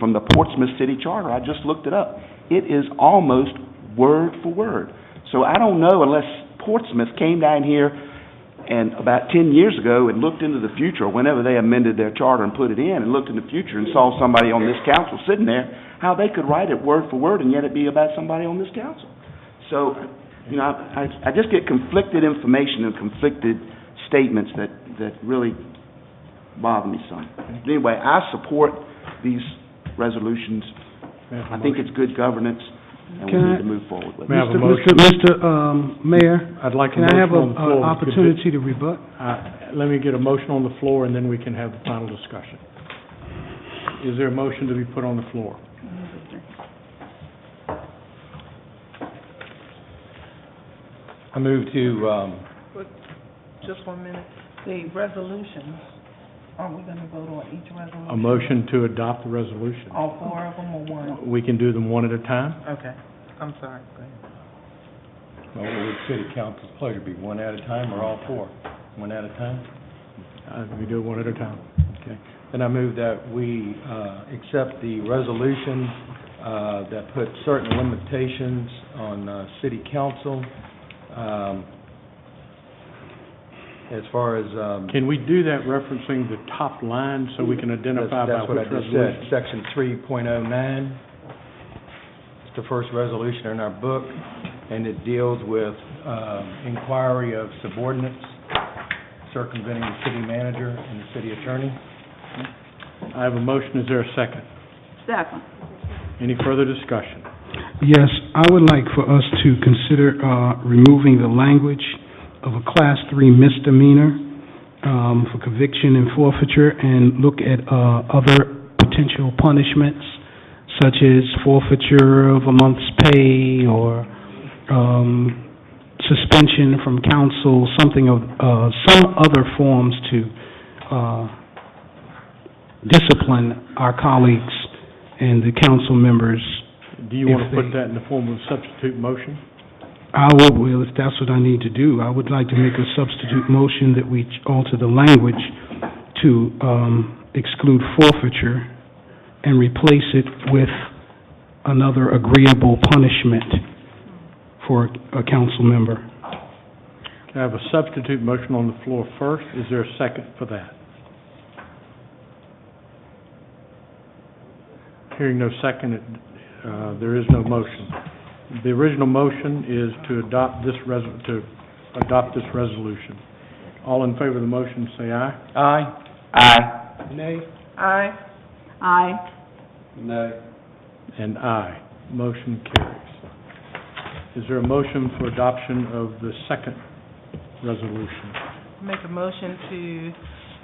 from the Portsmouth City Charter. I just looked it up. It is almost word for word. So I don't know unless Portsmouth came down here and about ten years ago and looked into the future, whenever they amended their charter and put it in, and looked in the future and saw somebody on this council sitting there, how they could write it word for word and yet it be about somebody on this council. So, you know, I, I- I just get conflicted information and conflicted statements that, that really bother me some. Anyway, I support these resolutions. I think it's good governance, and we Can I- need to move forward with May I it. have a Mr. Mr. um, Mayor, I'd like a can I have motion an on the floor. opportunity to rebut? Uh, Let me get a motion on the floor, and then we can have the final discussion. Is there a motion to be put on the floor? I move to, um, Just one minute. The resolutions, are we gonna vote on each resolution? A motion to adopt the resolution. All four of them or one? We can do them one at a time? Okay, I'm sorry, go ahead. well, what would city council's pleasure be, one at a time or all four? One at a time? Uh, We do it one at a time. Okay. Then I move that we uh, accept the resolution uh, that put certain limitations on uh, city council um, as far as... um, Can we do that referencing the top line so we can identify by That's- which That's what I resolution? just said, section three point oh nine. It's the first resolution in our book, and it deals with um, inquiry of subordinates circumventing the city manager and the city attorney. I have a motion, is there a second? Second. Any further discussion? Yes, I would like for us to consider uh, removing the language of a Class Three misdemeanor um, for conviction and forfeiture, and look at uh, other potential punishments, such as forfeiture of a month's pay, or um, suspension from council, something of, uh, some other forms to uh, discipline our colleagues and the council members Do you If want to put they- that in the form of a substitute motion? I would, well, if that's what I need to do, I would like to make a substitute motion that we alter the language to um, exclude forfeiture and replace it with another agreeable punishment for a council member. I have a substitute motion on the floor first, is there a second for that? Hearing no second, it, uh, there is no motion. The original motion is to adopt this res, to adopt this resolution. All in favor of the motion, say aye. Aye. Aye. Nay. Aye. Aye. Nay. And aye. Motion carries. Is there a motion for adoption of the second resolution? Make a motion to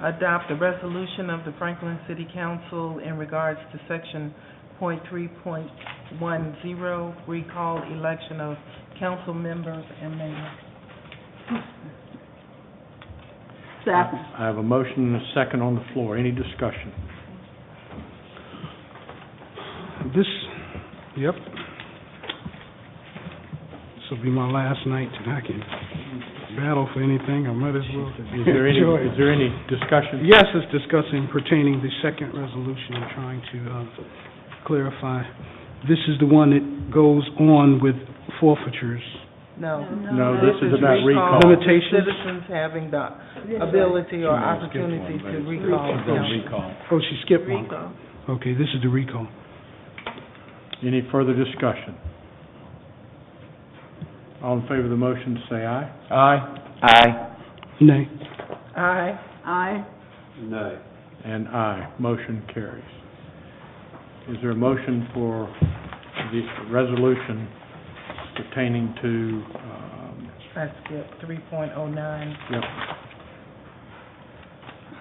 adopt the resolution of the Franklin City Council in regards to section point three point one zero, recall election of council members and mayor. Second. I have a motion and a second on the floor. Any discussion? This, yep. This will be my last night, and I can battle for anything, I might as well Is there any, enjoy it. is there any discussion? Yes, it's discussing pertaining the second resolution, I'm trying to uh, clarify. This is the one that goes on with forfeitures. No. No, this is about recall. Limitations? Citizens having the ability or opportunity to recall council. Recall. Oh, she skipped one. Okay, this is the recall. Any further discussion? All in favor of the motion, say aye. Aye. Aye. Nay. Aye. Aye. Nay. And aye. Motion carries. Is there a motion for the resolution pertaining to, um, I skipped three point oh nine, yep,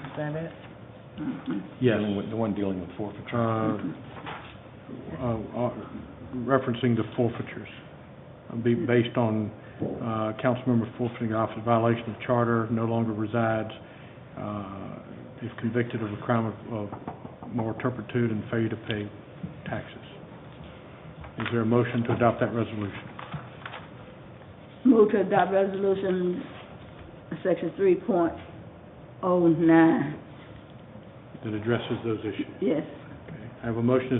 is that it? yes, The one dealing with forfeiture. uh, uh, uh, referencing the forfeitures, uh, be based on uh, council member forfeiting office violation of charter, no longer resides, uh, if convicted of a crime of of moral turpitude and failure to pay taxes. Is there a motion to adopt that resolution? Move to adopt resolution, section three point oh nine. That addresses those issues. Yes. Okay. I have a motion